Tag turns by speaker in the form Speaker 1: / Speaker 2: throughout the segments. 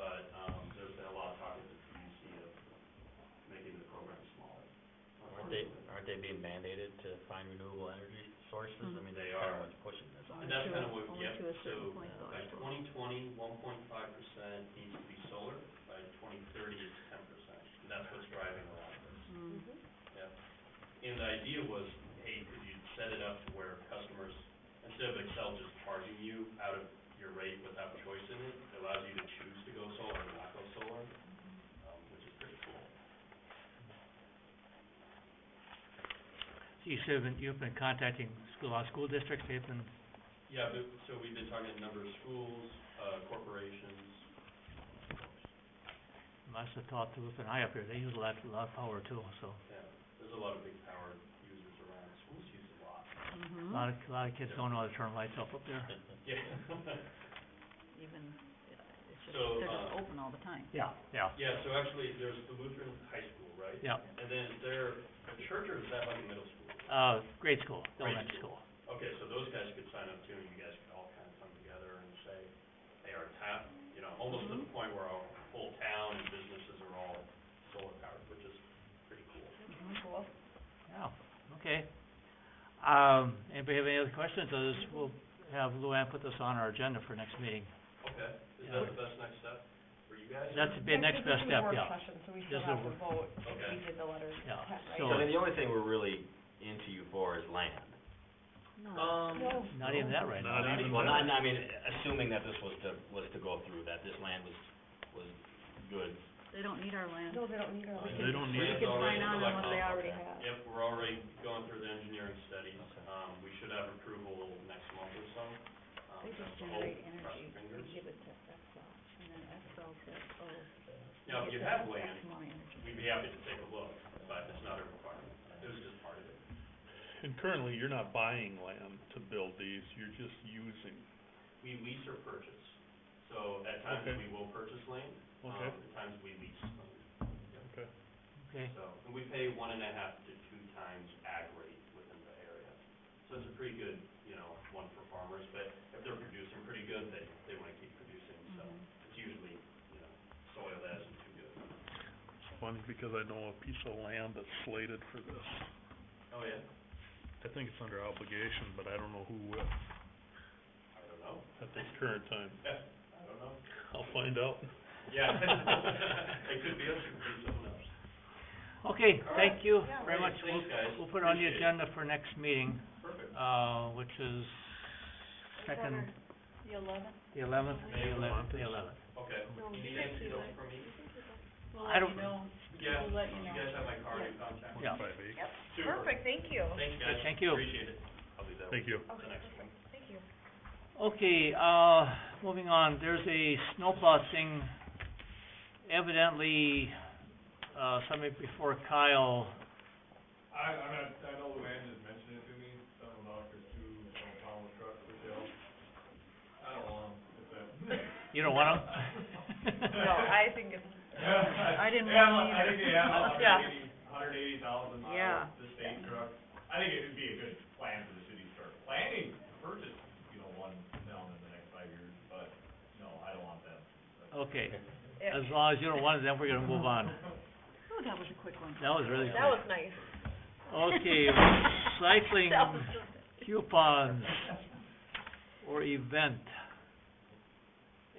Speaker 1: um,
Speaker 2: they, aren't they being mandated to find renewable energy sources? I mean,
Speaker 3: They
Speaker 2: that's
Speaker 3: are.
Speaker 2: kind of what's pushing this.
Speaker 3: Only to
Speaker 2: I mean,
Speaker 3: a-
Speaker 2: that-
Speaker 3: Only
Speaker 1: That's kind of what, yeah,
Speaker 3: to a certain
Speaker 1: so
Speaker 3: point though,
Speaker 1: by
Speaker 3: I think.
Speaker 1: twenty twenty, one point five percent needs to be solar, by twenty thirty, it's ten percent. And that's what's driving a lot of this,
Speaker 3: Mm.
Speaker 1: yeah. And the idea was, hey, could you set it up to where customers, instead of Excel just charging you out of your rate without choice in it, it allows you to choose to go solar or not go solar, um, which is pretty cool.
Speaker 4: So you said you've been, you've been contacting school, our school districts, they've been,
Speaker 1: Yeah, but, so we've been talking to a number of schools, uh, corporations,
Speaker 4: must have talked to us, and I up here, they use a lot, a lot of power too, so.
Speaker 1: Yeah, there's a lot of big power users around, schools use a lot.
Speaker 4: A
Speaker 5: Mm-hmm.
Speaker 3: Mhm.
Speaker 4: lot of, a lot of kids don't know how to turn lights off up there.
Speaker 1: Yeah.
Speaker 3: Even, uh, it's just,
Speaker 1: So,
Speaker 3: they're just
Speaker 1: uh,
Speaker 3: open all the time.
Speaker 4: Yeah, yeah,
Speaker 1: Yeah, so actually, there's the Lutheran High School, right?
Speaker 4: yeah.
Speaker 1: And then is there a church or is that like a middle school?
Speaker 4: Uh, grade school,
Speaker 1: Grade
Speaker 4: elementary school.
Speaker 1: Okay, so those guys could sign up too, and you guys could all kind of come together and say, hey, our town, you know, almost to the point where our whole town and businesses are all solar powered, which is pretty cool.
Speaker 5: Mm-hmm.
Speaker 3: Cool.
Speaker 4: Yeah, okay. Um, anybody have any other questions? Others, we'll have Luann put this on our agenda for next meeting.
Speaker 1: Okay, is
Speaker 4: Yeah.
Speaker 1: that the best next step for you guys?
Speaker 4: That's the next best step, yeah, This is a work-
Speaker 5: vote
Speaker 1: Okay.
Speaker 5: did the letter
Speaker 4: Yeah,
Speaker 2: So
Speaker 4: So-
Speaker 2: then the only thing we're really into you for is land.
Speaker 3: No.
Speaker 1: Um,
Speaker 4: not even that right now.
Speaker 1: Not even
Speaker 2: Well,
Speaker 1: that.
Speaker 2: not, not- I mean, assuming that this was to, was to go through, that this land was, was good.
Speaker 3: They don't need our land.
Speaker 5: they don't need
Speaker 2: They
Speaker 5: can-
Speaker 2: don't need
Speaker 5: we
Speaker 1: it.
Speaker 5: can
Speaker 1: Already
Speaker 5: sign on
Speaker 1: selected.
Speaker 5: what they
Speaker 2: Oh,
Speaker 5: already
Speaker 2: okay.
Speaker 5: have.
Speaker 1: Yep, we're already going through the engineering studies.
Speaker 2: Okay.
Speaker 1: Um, we should have approval next month or so. Um,
Speaker 3: They
Speaker 1: that's
Speaker 3: just
Speaker 1: the hope,
Speaker 3: generate
Speaker 1: cross
Speaker 3: energy,
Speaker 1: fingers.
Speaker 3: we give it to Excel, and then Excel says, oh.
Speaker 1: Now, if you
Speaker 3: it's
Speaker 1: have
Speaker 3: X
Speaker 1: land,
Speaker 3: amount of energy.
Speaker 1: we'd be happy to take a look, but it's not a requirement. It was just part of it.
Speaker 6: And currently, you're not buying land to build these, you're just using,
Speaker 1: We lease or purchase. So at times,
Speaker 6: Okay.
Speaker 1: we will purchase land. um,
Speaker 4: Uh-huh.
Speaker 6: Okay.
Speaker 1: At times, we lease land.
Speaker 6: okay?
Speaker 4: Okay,
Speaker 1: So, and we pay one and a half to two times ag rate within the area. So it's a pretty good, you know, one for farmers, but if they're producing pretty good, they, they wanna keep producing, so
Speaker 5: Mm-hmm.
Speaker 3: Mm-hmm.
Speaker 1: it's usually, you know, soil that isn't too good.
Speaker 6: It's funny because I know a piece of land that's slated for this.
Speaker 1: Oh, yeah?
Speaker 6: I think it's under obligation, but I don't know who with
Speaker 1: I don't know.
Speaker 6: at this current time.
Speaker 1: I don't know.
Speaker 6: I'll find out.
Speaker 1: Yeah. It could be us, it could be someone else.
Speaker 4: okay,
Speaker 1: All right.
Speaker 4: thank you very
Speaker 1: great.
Speaker 4: much. We'll-
Speaker 1: Thanks, guys.
Speaker 4: We'll put it on the
Speaker 1: Appreciate it.
Speaker 4: agenda for next meeting,
Speaker 1: Perfect.
Speaker 4: uh, which is second,
Speaker 5: The eleventh?
Speaker 4: the eleventh,
Speaker 1: May
Speaker 4: the eleventh, the
Speaker 6: eleventh.
Speaker 4: eleventh.
Speaker 1: Okay.
Speaker 5: No,
Speaker 1: Do
Speaker 5: we
Speaker 1: you
Speaker 5: have
Speaker 1: guys
Speaker 5: to
Speaker 1: need
Speaker 5: do
Speaker 1: help
Speaker 5: it.
Speaker 1: from me?
Speaker 4: I don't know.
Speaker 1: Yeah,
Speaker 5: We'll let you
Speaker 1: you
Speaker 5: know.
Speaker 1: guys have my card and contact.
Speaker 4: Yeah.
Speaker 6: Five eight.
Speaker 1: Super.
Speaker 5: thank you.
Speaker 1: Thanks, guys.
Speaker 4: Thank you.
Speaker 1: Appreciate it. I'll do that.
Speaker 6: Thank you.
Speaker 1: The next one.
Speaker 5: thank you.
Speaker 4: Okay, uh, moving on, there's a snowplow thing evidently, uh, somebody before Kyle,
Speaker 7: I, I'm not, I know Luann just mentioned it to me, something about there's two, some pound trucks for sale. I don't want 'em, if that.
Speaker 4: you don't want
Speaker 5: No,
Speaker 4: them?
Speaker 5: I think it's,
Speaker 3: I didn't
Speaker 7: Yeah,
Speaker 3: want
Speaker 7: I think they have a
Speaker 5: either. Yeah.
Speaker 7: hundred eighty, hundred eighty thousand
Speaker 3: Yeah.
Speaker 7: miles, the state truck. I think it'd be a good plan for the city to start planning, to purchase, you know, one down in the next five years, but, no, I don't want that.
Speaker 4: Okay,
Speaker 5: it-
Speaker 4: as long as you don't want it, then we're gonna move on.
Speaker 3: Oh, that was a quick one.
Speaker 4: That was really
Speaker 5: that was
Speaker 4: quick.
Speaker 5: nice.
Speaker 4: Okay, cycling
Speaker 5: That was just-
Speaker 4: coupons or event.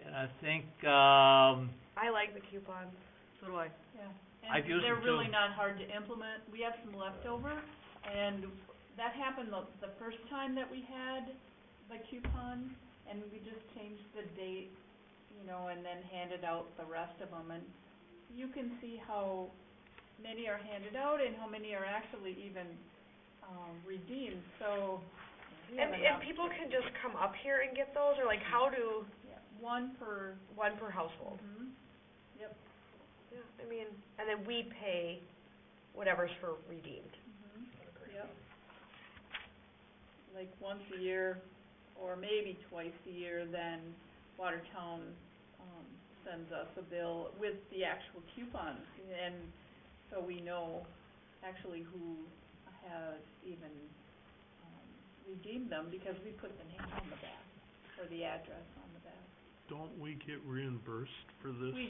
Speaker 4: And I think, um,
Speaker 5: I like the coupons.
Speaker 3: So do I.
Speaker 8: Yeah,
Speaker 4: I've used
Speaker 8: and they're
Speaker 4: them
Speaker 8: really
Speaker 4: too.
Speaker 8: not hard to implement, we have some leftover, and that happened the, the first time that we had the coupon, and we just changed the date, you know, and then handed out the rest of them, and you can see how many are handed out and how many are actually even, um, redeemed, so. we have
Speaker 5: And,
Speaker 8: enough.
Speaker 5: and people can just come up here and get those, or like, how do,
Speaker 8: Yeah, One per,
Speaker 5: one per household?
Speaker 8: mhm, yep,
Speaker 5: Yeah, I mean, and then we pay whatever's for redeemed.
Speaker 8: mhm. Yep. Like once a year, or maybe twice a year, then Watertown, um, sends us a bill with the actual coupons. And so we know actually who has even, um, redeemed them, because we put the name on the back, or the address on the back.
Speaker 6: Don't we get reimbursed for this?
Speaker 8: We